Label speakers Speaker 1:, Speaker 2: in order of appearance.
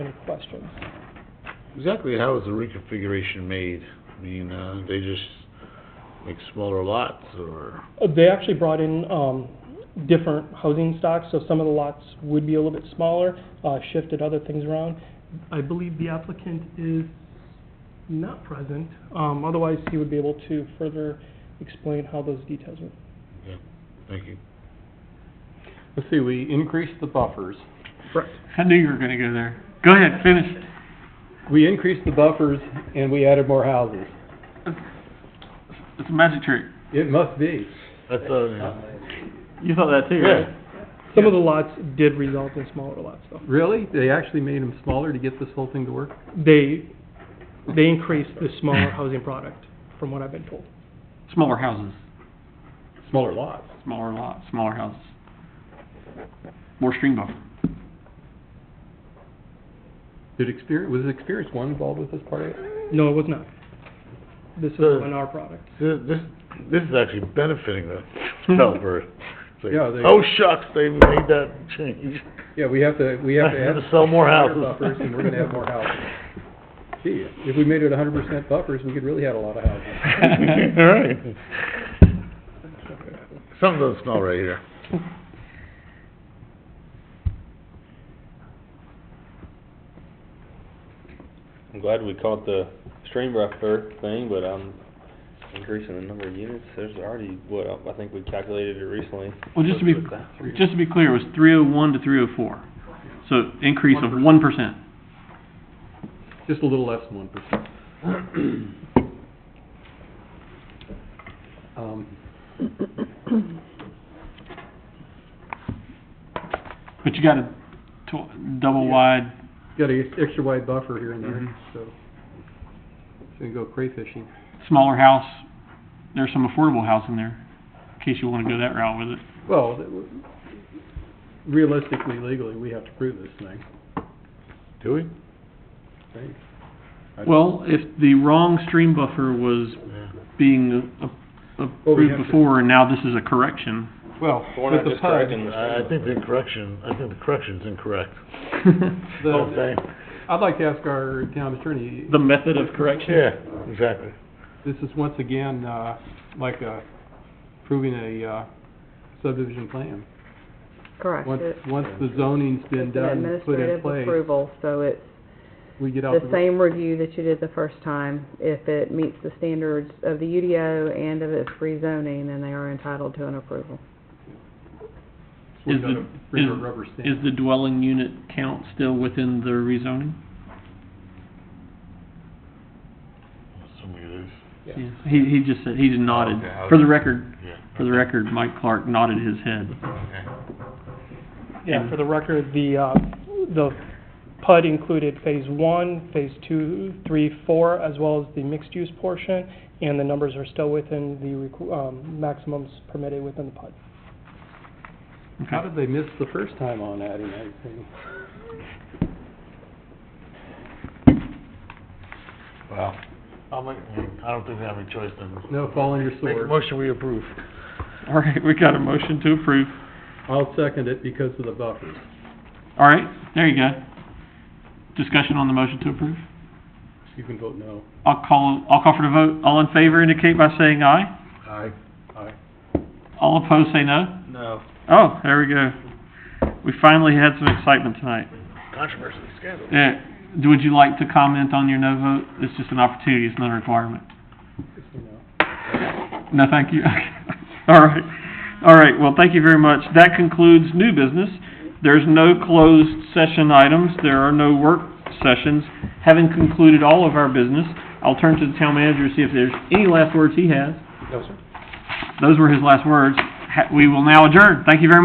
Speaker 1: any questions.
Speaker 2: Exactly how was the reconfiguration made? I mean, uh, they just make smaller lots or?
Speaker 1: Uh, They actually brought in um, different housing stocks, so some of the lots would be a little bit smaller, uh, shifted other things around. I believe the applicant is not present, um, otherwise he would be able to further explain how those details were.
Speaker 2: Okay, Thank you.
Speaker 3: Let's see, we increased the buffers.
Speaker 4: I knew you were gonna go there. Go ahead, finish.
Speaker 3: We increased the buffers and we added more houses.
Speaker 4: It's a magic trick.
Speaker 3: It must be.
Speaker 2: That's, uh, yeah.
Speaker 4: You thought that too, right?
Speaker 1: Some of the lots did result in smaller lots, though.
Speaker 3: Really? They actually made them smaller to get this whole thing to work?
Speaker 1: They, they increased the smaller housing product, from what I've been told.
Speaker 4: Smaller houses,
Speaker 3: Smaller lots.
Speaker 4: smaller lots, smaller houses. More stream buffer.
Speaker 3: Did experience, was Experience One involved with this part of it?
Speaker 1: No, it was not. This is
Speaker 2: So-
Speaker 1: an R product.
Speaker 2: This, this- this is actually benefiting the developer. It's like,
Speaker 3: Yeah, they-
Speaker 2: Oh shucks, they made that change.
Speaker 3: Yeah, we have to, we have to add.
Speaker 2: Have to sell more
Speaker 3: higher
Speaker 2: houses.
Speaker 3: Buffers and we're gonna have more houses. Gee, if we made it hundred percent buffers, we could really have a lot of houses.
Speaker 2: All right. Something doesn't smell right here.
Speaker 5: I'm glad we caught the stream buffer thing, but I'm increasing the number of units, there's already, what, I think we calculated it recently.
Speaker 4: Well, just to be, just to be clear, it was three oh one to three oh four. So increase of one percent.
Speaker 3: Just a little less than one percent. Um,
Speaker 4: But you got a tw- double wide,
Speaker 3: got a extra wide buffer here and there,
Speaker 4: Mhm.
Speaker 3: so. Mm-hmm. It's gonna go crayfishing.
Speaker 4: smaller house. There's some affordable house in there, in case you wanna go that route with it.
Speaker 3: Well, that w- realistically, legally, we have to prove this thing,
Speaker 2: Do we?
Speaker 3: I think. I-
Speaker 4: Well, if the wrong stream buffer was being a- a-
Speaker 3: Well, we
Speaker 4: approved
Speaker 3: have to-
Speaker 4: before, and now this is a correction.
Speaker 3: Well,
Speaker 5: We're
Speaker 3: with
Speaker 5: not
Speaker 3: the uh,
Speaker 5: just
Speaker 3: PUD,
Speaker 5: correcting the
Speaker 2: I, I think the correction, I think the correction's incorrect. Oh,
Speaker 3: the-
Speaker 2: Okay.
Speaker 3: I'd like to ask our town attorney,
Speaker 4: The method of correction?
Speaker 2: Yeah, exactly.
Speaker 3: this is once again, uh, like, uh, proving a, uh, subdivision plan.
Speaker 6: Correct.
Speaker 3: Once,
Speaker 6: It-
Speaker 3: once the zoning's been
Speaker 6: It's an
Speaker 3: done, put in
Speaker 6: administrative
Speaker 3: place,
Speaker 6: approval, so it's
Speaker 3: we get out
Speaker 6: the
Speaker 3: the,
Speaker 6: same review that you did the first time. If it meets the standards of the UDO and of its rezoning, then they are entitled to an approval.
Speaker 3: we
Speaker 4: Is
Speaker 3: gotta
Speaker 4: the-
Speaker 3: bring a
Speaker 4: is-
Speaker 3: rubber stamp.
Speaker 4: Is the dwelling unit count still within the rezoning?
Speaker 2: Some of it is,
Speaker 3: Yeah.
Speaker 4: He, he just said, he just nodded.
Speaker 2: Okay, I
Speaker 4: For the
Speaker 2: was-
Speaker 4: record,
Speaker 2: yeah.
Speaker 4: for the record, Mike Clark nodded his head.
Speaker 2: Okay.
Speaker 1: Yeah,
Speaker 4: And-
Speaker 1: for the record, the, uh, the PUD included phase one, phase two, three, four, as well as the mixed-use portion, and the numbers are still within the, requ- um, maximums permitted within the PUD.
Speaker 4: Okay.
Speaker 3: How did they miss the first time on adding anything?
Speaker 2: Wow. I'll make, I don't think they have any choice then.
Speaker 3: No, fall on your
Speaker 2: Make a
Speaker 3: sword.
Speaker 2: motion, we approve.
Speaker 4: All right, we got a motion to approve.
Speaker 3: I'll second it because of the buffers.
Speaker 4: All right, there you go. Discussion on the motion to approve?
Speaker 3: You can vote no.
Speaker 4: I'll call, I'll call for the vote. All in favor indicate by saying aye.
Speaker 2: Aye.
Speaker 4: All opposed say no.
Speaker 5: No.
Speaker 4: Oh, there we go. We finally had some excitement tonight.
Speaker 2: Controversy, scandal.
Speaker 4: Uh, d- would you like to comment on your no vote? It's just an opportunity, it's not a requirement.
Speaker 3: Just a no.
Speaker 4: No, thank you. All right, all right, well, thank you very much. That concludes new business. There's no closed session items, there are no work sessions. Having concluded all of our business, I'll turn to the town manager to see if there's any last words he has.
Speaker 3: No, sir.
Speaker 4: Those were his last words. Ha- We will now adjourn. Thank you very much.